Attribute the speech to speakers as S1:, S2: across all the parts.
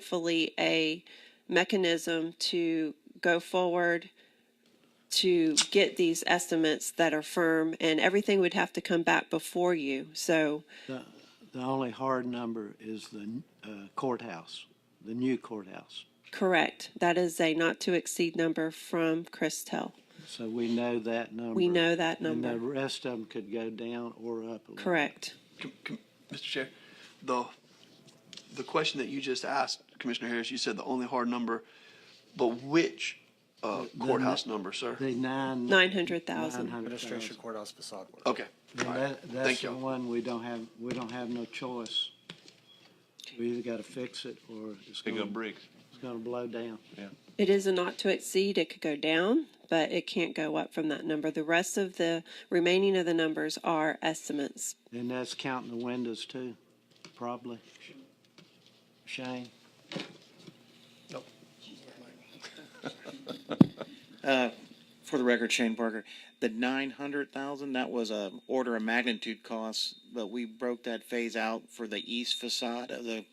S1: hopefully a mechanism to go forward to get these estimates that are firm, and everything would have to come back before you. So,
S2: The, the only hard number is the uh, courthouse, the new courthouse.
S1: correct, that is a not to exceed number from Christel.
S2: So we know that number.
S1: We know that
S2: And the
S1: number.
S2: rest of them could go down or up. a little.
S1: Correct.
S3: Com- com- Mr. Chair, the, the question that you just asked, Commissioner Harris, you said the only hard number, but which uh, courthouse number, sir?
S2: The nine.
S1: 900,000.
S2: 900,000.
S4: Administration courthouse facade work.
S3: Okay.
S2: And
S3: all right.
S2: that- That's
S3: Thank
S2: the
S3: you.
S2: one we don't have, we don't have no choice. We either gotta fix it or it's
S5: Pick
S2: gonna,
S5: up bricks.
S2: it's gonna blow down.
S1: It is a not to exceed. It could go down, but it can't go up from that number. The rest of the remaining of the numbers are estimates.
S2: And that's counting the windows too, probably. Shane?
S6: For the record, Shane Parker, the nine hundred thousand, that was a order of magnitude cost, but we broke that phase out for the east facade of the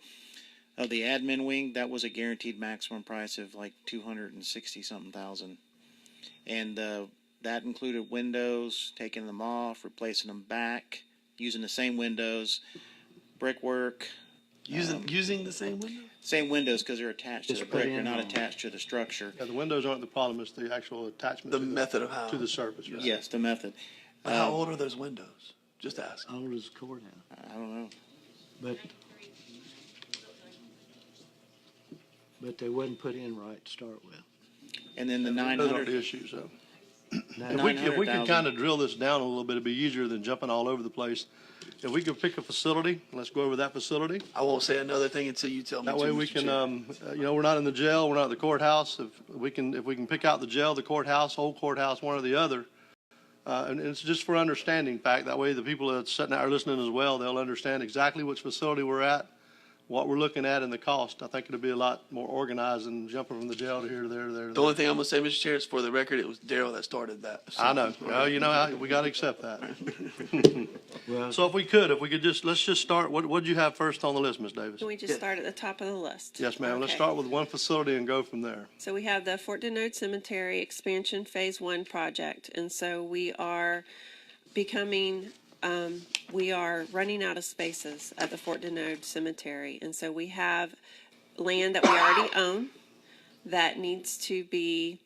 S6: of the admin wing. That was a guaranteed maximum price of like two hundred and sixty something thousand, and uh, that included windows, taking them off, replacing them back, using the same windows, brickwork,
S3: Using, using the same window?
S6: same windows because they're attached to
S2: Just
S6: the
S2: put
S6: brick, they're
S2: in
S6: not
S2: on-
S6: attached to the structure.
S7: Yeah, the windows aren't the problem, it's the actual attachment.
S3: The
S7: to
S3: method of how.
S7: To the surface, right?
S6: Yes, the method.
S3: But How old are those windows? Just ask.
S2: Old as a courthouse,
S6: I don't know.
S2: but. But they wouldn't put in right to start with.
S6: And then the nine
S7: Those aren't the
S6: hundred.
S7: issues, so.
S2: Now,
S7: If we, if we
S6: 900,000.
S7: could kind of drill this down a little bit, it'd be easier than jumping all over the place. If we could pick a facility, let's go over that facility.
S3: I won't say another thing until you tell me
S7: That
S3: to,
S7: way we
S3: Mr.
S7: can,
S3: Chair.
S7: um, uh, you know, we're not in the jail, we're not at the courthouse. If we can, if we can pick out the jail, the courthouse, old courthouse, one or the other. Uh, and and it's just for understanding fact. That way the people that's sitting out are listening as well, they'll understand exactly which facility we're at, what we're looking at and the cost. I think it'll be a lot more organized than jumping from the jail to here, to there, to there. to
S3: The only thing I'm gonna say, Mr. Chair, is for the record, it was Daryl that started that.
S7: there. I know. Well, you know, I- we got to accept that.
S2: well,
S7: So if we could, if we could just, let's just start, what, what'd you have first on the list, Ms. Davis?
S1: Can we just start at the top of the list?
S7: Yes, ma'am. Let's
S1: Okay.
S7: start with one facility and go from there.
S1: So we have the Fort Denote Cemetery Expansion Phase One project, and so we are becoming, um, we are running out of spaces at the Fort Denote Cemetery, and so we have land that we already own that needs to be,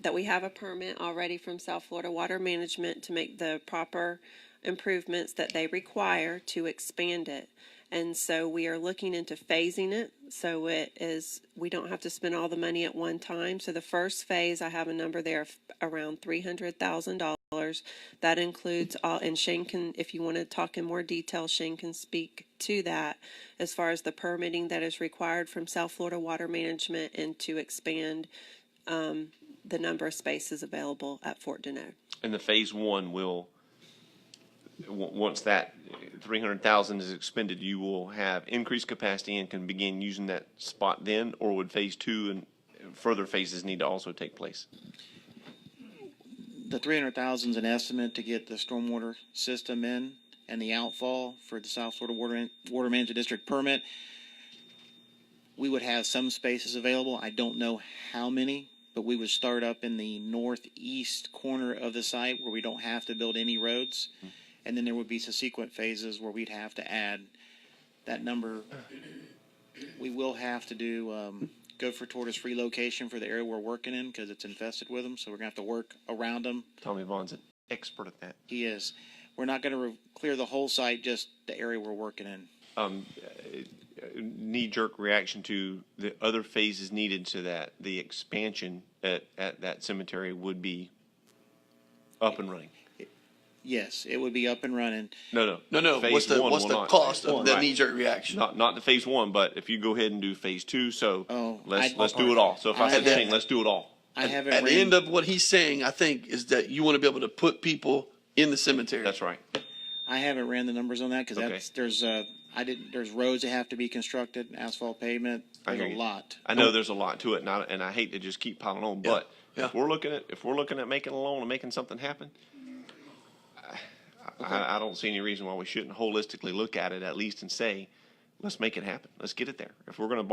S1: that we have a permit already from South Florida Water Management to make the proper improvements that they require to expand it. And so we are looking into phasing it, so it is, we don't have to spend all the money at one time. So the first phase, I have a number there of around three hundred thousand dollars. That includes all, and Shane can, if you want to talk in more detail, Shane can speak to that as far as the permitting that is required from South Florida Water Management and to expand um, the number of spaces available at Fort Deneau.
S5: And the phase one will, w- once that three hundred thousand is expended, you will have increased capacity and can begin using that spot then, or would phase two and further phases need to also take place?
S6: The three hundred thousand is an estimate to get the stormwater system in and the outfall for the South Florida Water, Water Management District permit. We would have some spaces available. I don't know how many, but we would start up in the northeast corner of the site where we don't have to build any roads.
S7: Hmm.
S6: And then there would be subsequent phases where we'd have to add that number. We will have to do, um, go for tortoise relocation for the area we're working in because it's infested with them. So we're gonna have to work around them.
S5: Tommy Vaughn's an expert at that.
S6: He is. We're not going to re- clear the whole site, just the area we're working in.
S5: Um, knee-jerk reaction to the other phases needed so that the expansion at, at that cemetery would be up and running.
S6: Yes, it would be up and running.
S5: No, no.
S3: No, no,
S5: Phase
S3: what's the,
S5: one
S3: what's
S5: will
S3: the
S5: not.
S3: cost
S5: One,
S3: of that
S5: right.
S3: knee-jerk reaction?
S5: Not, not the phase one, but if you go ahead and do phase two, so
S6: Oh,
S5: let's,
S6: I-
S5: let's do it all. So if I
S6: I-
S5: said Shane, let's do it all.
S6: I haven't
S3: At the
S6: ran-
S3: end of what he's saying, I think, is that you wanna be able to put people in the cemetery.
S5: That's right.
S6: I haven't ran the numbers on that because
S5: Okay.
S6: that's there's uh I didn't there's roads that have to be constructed, asphalt pavement.
S5: I
S6: There's
S5: hear
S6: a
S5: you.
S6: lot.
S5: I know there's a lot to it, and I, and I hate to just keep piling on, but
S3: yeah.
S5: if we're looking at, if we're looking at making a loan and making something happen, I, I, I don't see any reason why we shouldn't holistically look at it at least and say, let's make it happen. Let's get it there. If we're going to borrow